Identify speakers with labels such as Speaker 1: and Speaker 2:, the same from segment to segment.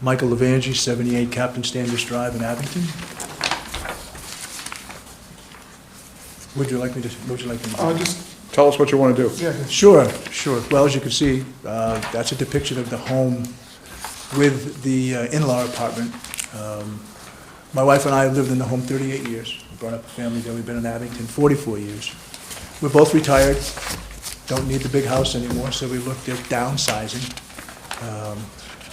Speaker 1: Michael Levangie, 78 Captain Standish Drive in Abington. Would you like me to, would you like me to?
Speaker 2: Uh, just,
Speaker 3: Tell us what you want to do.
Speaker 2: yeah,
Speaker 1: Sure, sure. Well, as you can see, uh, that's a depiction of the home with the uh, in-law apartment. Um, My wife and I have lived in the home 38 years. We Brought up a family there, we've been in Abington 44 years. We're both retired, don't need the big house anymore, so we looked at downsizing. Um,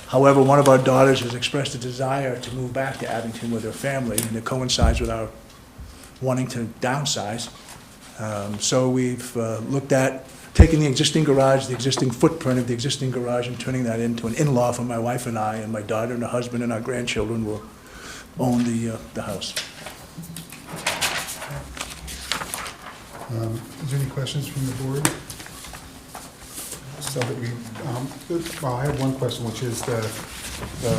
Speaker 1: However, one of our daughters has expressed a desire to move back to Abington with her family, and it coincides with our wanting to downsize. Um, So we've uh, looked at taking the existing garage, the existing footprint of the existing garage, and turning that into an in-law for my wife and I, and my daughter and her husband and our grandchildren will own the, uh, the house.
Speaker 2: Um, Is there any questions from the board? So that we, um, well, I have one question, which is the, the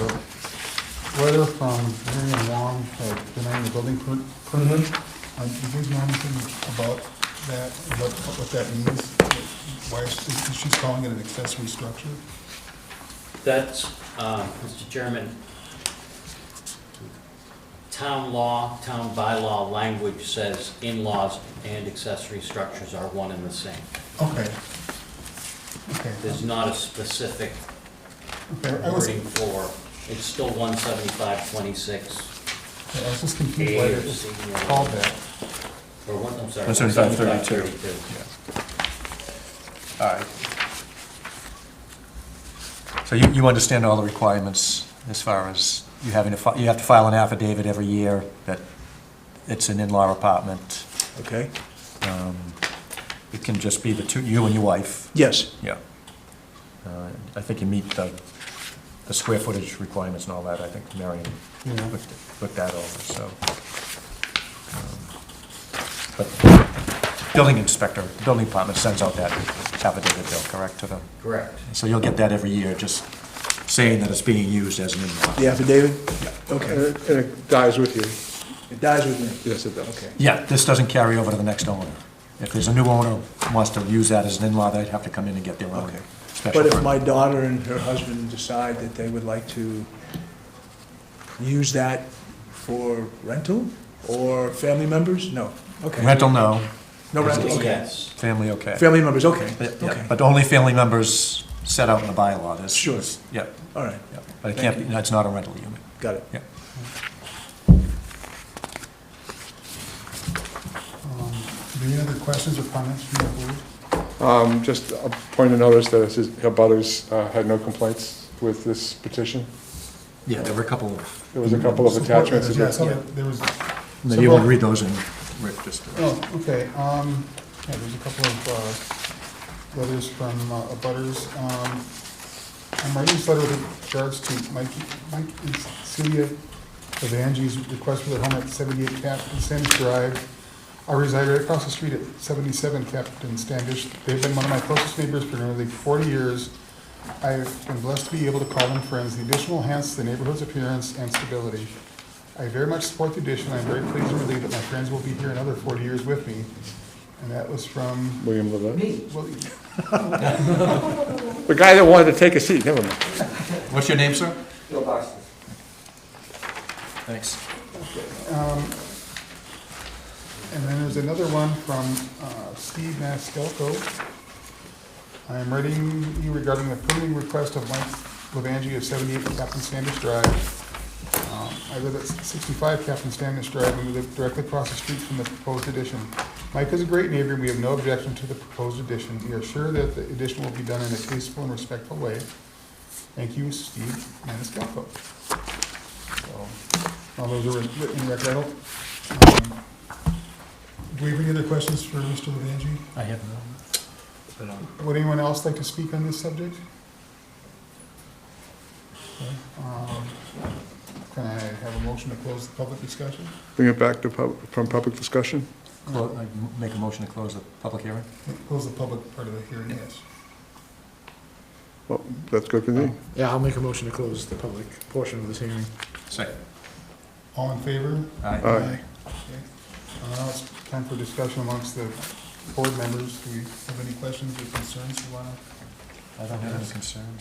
Speaker 2: letter from Marion Wong uh, denying the building per- permit.
Speaker 3: Mm-hmm.
Speaker 2: Um, Do you know anything about that, what, what that means? Why she's, she's calling it an accessory structure?
Speaker 4: That's, um, Mr. Chairman, town law, town bylaw language says in-laws and accessory structures are one and the same.
Speaker 2: Okay. Okay.
Speaker 4: There's not a specific
Speaker 2: Okay, I was,
Speaker 4: wording for, it's still one seventy-five twenty-six,
Speaker 2: I was just confused why
Speaker 4: A or
Speaker 2: it was
Speaker 4: C.
Speaker 2: called that.
Speaker 4: Or one, I'm sorry.
Speaker 3: 175,
Speaker 4: 175.
Speaker 5: All right. So you, you understand all the requirements as far as you having to, fi- you have to file an affidavit every year that it's an in-law apartment.
Speaker 1: Okay?
Speaker 5: Um, It can just be the two, you and your wife.
Speaker 1: Yes,
Speaker 5: Yeah. Uh, I think you meet the, the square footage requirements and all that. I think Marion
Speaker 2: Yeah.
Speaker 5: looked, looked that over, so. um, But building inspector, the building department sends out that affidavit bill, correct, to them?
Speaker 4: Correct.
Speaker 5: So you'll get that every year, just saying that it's being used as an in-law.
Speaker 1: the affidavit? Okay,
Speaker 3: And and it dies with you.
Speaker 1: it dies with me.
Speaker 3: Yes, it does.
Speaker 5: Yeah, this doesn't carry over to the next owner. If there's a new owner who wants to use that as an in-law, they'd have to come in and get their own
Speaker 1: Okay.
Speaker 5: special
Speaker 1: But if
Speaker 5: permit.
Speaker 1: my daughter and her husband decide that they would like to use that for rental or family members? No, okay.
Speaker 5: Rental, no.
Speaker 1: No rental, okay.
Speaker 4: Yes.
Speaker 5: Family, okay.
Speaker 1: Family members, okay,
Speaker 5: Yeah,
Speaker 1: okay,
Speaker 5: yeah, But only family members set out in the bylaw, this.
Speaker 1: Sure.
Speaker 5: this- Yeah,
Speaker 1: all right,
Speaker 5: yeah, but it can't, be. that's not a rental unit,
Speaker 1: got it.
Speaker 5: yeah.
Speaker 2: Um, Do you have any other questions or comments from the board?
Speaker 3: Um, Just a point of notice that it says Butters uh, had no complaints with this petition.
Speaker 5: Yeah, there were a couple of,
Speaker 3: There was a couple of attachments.
Speaker 2: Yeah, I saw that There was.
Speaker 5: maybe you want to read those in, Rick, just.
Speaker 2: Oh, okay, um, yeah, there's a couple of, uh, letters from, uh, abutters, um, I'm writing this letter with regards to Mike, Mike and Celia Evange's request for their home at seventy-eight Captain Standish Drive. I reside right across the street at seventy-seven Captain Standish. They've been one of my closest neighbors for nearly forty years. I've been blessed to be able to call them friends. The addition will enhance the neighborhood's appearance and stability. I very much support the addition. I'm very pleased and relieved that my friends will be here another forty years with me. And that was from,
Speaker 3: William Levin.
Speaker 2: well,
Speaker 3: The guy that wanted to take a seat, never mind.
Speaker 5: What's your name, sir? Thanks.
Speaker 2: Um, And then there's another one from uh, Steve Mastelko. I am writing you regarding the permitting request of Mike Levangie of 78 Captain Standish Drive. Um, I live at 65 Captain Standish Drive, and we live directly across the street from the proposed addition. Mike is a great neighbor, and we have no objection to the proposed addition. We are sure that the addition will be done in a tasteful and respectful way. Thank you, Steve Maniscalco. So, All those are writ- written in record. I don't, um, Do we have any other questions for Mr. Levangie?
Speaker 5: I have no.
Speaker 2: Would anyone else like to speak on this subject? Okay, um, Can I have a motion to close the public discussion?
Speaker 3: Bring it back to, pub- from public discussion.
Speaker 5: Clo- I m- Make a motion to close the public hearing?
Speaker 2: Close the public part of the hearing, yes.
Speaker 3: Well, that's good for me.
Speaker 6: Yeah, I'll make a motion to close the public portion of this hearing.
Speaker 5: Second.
Speaker 2: All in favor?
Speaker 3: Aye.
Speaker 2: Okay. Uh, Now it's time for discussion amongst the board members. Do we have any questions or concerns you want to
Speaker 5: I don't have any concerns.